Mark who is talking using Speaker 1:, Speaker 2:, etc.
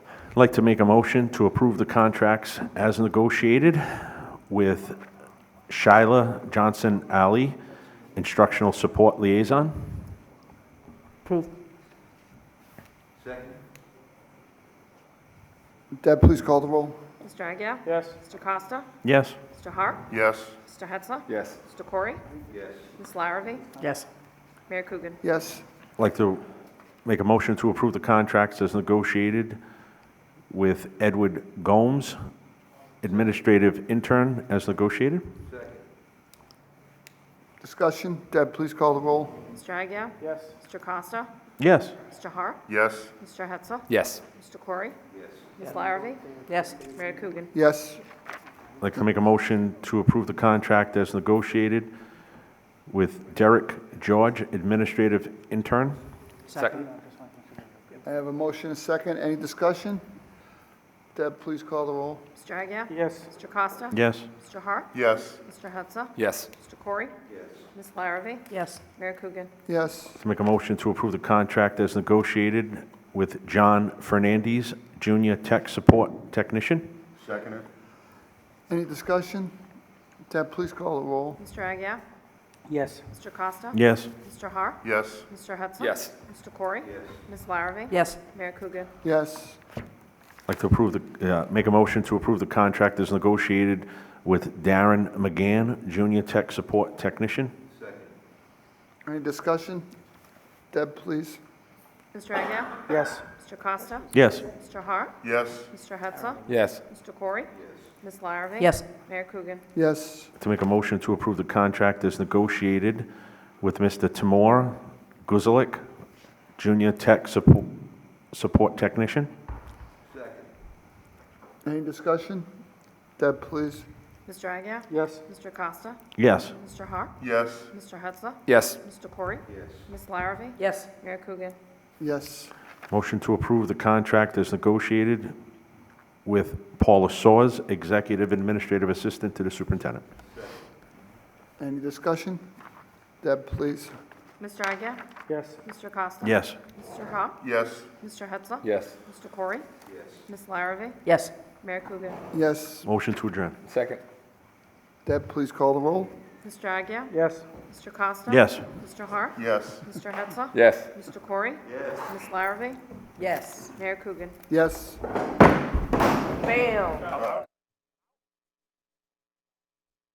Speaker 1: I'd like to make a motion to approve the contracts as negotiated with Shyla Johnson Ali, Instructional Support Liaison.
Speaker 2: Approved.
Speaker 3: Second?
Speaker 4: Deb, please call the roll.
Speaker 5: Mr. Agia?
Speaker 2: Yes.
Speaker 5: Mr. Costa?
Speaker 1: Yes.
Speaker 5: Mr. Hart?
Speaker 3: Yes.
Speaker 5: Mr. Hetzler?
Speaker 4: Yes.
Speaker 5: Mr. Corey?
Speaker 3: Yes.
Speaker 5: Ms. Larrabee?
Speaker 2: Yes.
Speaker 5: Mayor Coogan?
Speaker 4: Yes.
Speaker 1: I'd like to make a motion to approve the contracts as negotiated with Edward Gomes, Administrative Intern, as negotiated.
Speaker 4: Discussion. Deb, please call the roll.
Speaker 5: Mr. Agia?
Speaker 2: Yes.
Speaker 5: Mr. Costa?
Speaker 1: Yes.
Speaker 5: Mr. Hart?
Speaker 3: Yes.
Speaker 5: Mr. Hetzler?
Speaker 6: Yes.
Speaker 5: Mr. Corey?
Speaker 3: Yes.
Speaker 5: Ms. Larrabee?
Speaker 2: Yes.
Speaker 5: Mayor Coogan?
Speaker 4: Yes.
Speaker 1: I'd like to make a motion to approve the contract as negotiated with Derek George, Administrative Intern.
Speaker 6: Second.
Speaker 4: I have a motion, and a second. Any discussion? Deb, please call the roll.
Speaker 5: Mr. Agia?
Speaker 2: Yes.
Speaker 5: Mr. Costa?
Speaker 1: Yes.
Speaker 5: Mr. Hart?
Speaker 3: Yes.
Speaker 5: Mr. Hetzler?
Speaker 6: Yes.
Speaker 5: Mr. Corey? Yes. Ms. Larrabee?
Speaker 2: Yes.
Speaker 5: Mayor Coogan?
Speaker 4: Yes.
Speaker 1: To make a motion to approve the contract as negotiated with John Fernandez, Junior Tech Support Technician.
Speaker 3: Second?
Speaker 4: Any discussion? Deb, please call the roll.
Speaker 5: Mr. Agia?
Speaker 2: Yes.
Speaker 5: Mr. Costa?
Speaker 1: Yes.
Speaker 5: Mr. Hart?
Speaker 3: Yes.
Speaker 5: Mr. Hetzler?
Speaker 6: Yes.
Speaker 5: Mr. Corey?
Speaker 3: Yes.
Speaker 5: Ms. Larrabee?
Speaker 2: Yes.
Speaker 5: Mayor Coogan?
Speaker 4: Yes.
Speaker 1: I'd like to approve the, uh, make a motion to approve the contract as negotiated with Darren McGann, Junior Tech Support Technician.
Speaker 4: Any discussion? Deb, please.
Speaker 5: Mr. Agia?
Speaker 2: Yes.
Speaker 5: Mr. Costa?
Speaker 1: Yes.
Speaker 5: Mr. Hart?
Speaker 3: Yes.
Speaker 5: Mr. Hetzler?
Speaker 6: Yes.
Speaker 5: Mr. Corey? Ms. Larrabee?
Speaker 2: Yes.
Speaker 5: Mayor Coogan?
Speaker 4: Yes.
Speaker 1: To make a motion to approve the contract as negotiated with Mr. Timur Guzelik, Junior Tech Support, Support Technician.
Speaker 4: Any discussion? Deb, please.
Speaker 5: Mr. Agia?
Speaker 2: Yes.
Speaker 5: Mr. Costa?
Speaker 1: Yes.
Speaker 5: Mr. Hart?
Speaker 3: Yes.
Speaker 5: Mr. Hetzler?
Speaker 6: Yes.
Speaker 5: Mr. Corey?
Speaker 3: Yes.
Speaker 5: Ms. Larrabee?
Speaker 2: Yes.
Speaker 5: Mayor Coogan?
Speaker 4: Yes.
Speaker 1: Motion to approve the contract as negotiated with Paula Soers, Executive Administrative Assistant to the Superintendent.
Speaker 4: Any discussion? Deb, please.
Speaker 5: Mr. Agia?
Speaker 2: Yes.
Speaker 5: Mr. Costa?
Speaker 1: Yes.
Speaker 5: Mr. Hart?
Speaker 3: Yes.
Speaker 5: Mr. Hetzler?
Speaker 6: Yes.
Speaker 5: Mr. Corey?
Speaker 3: Yes.
Speaker 5: Ms. Larrabee?
Speaker 2: Yes.
Speaker 5: Mayor Coogan?
Speaker 4: Yes.
Speaker 1: Motion to adjourn.
Speaker 6: Second.
Speaker 4: Deb, please call the roll.
Speaker 5: Mr. Agia?
Speaker 2: Yes.
Speaker 5: Mr. Costa?
Speaker 1: Yes.
Speaker 5: Mr. Hart?
Speaker 3: Yes.
Speaker 5: Mr. Hetzler?
Speaker 6: Yes.
Speaker 5: Mr. Corey? Yes. Ms. Larrabee?
Speaker 2: Yes.
Speaker 5: Mayor Coogan?
Speaker 4: Yes.
Speaker 2: Fail.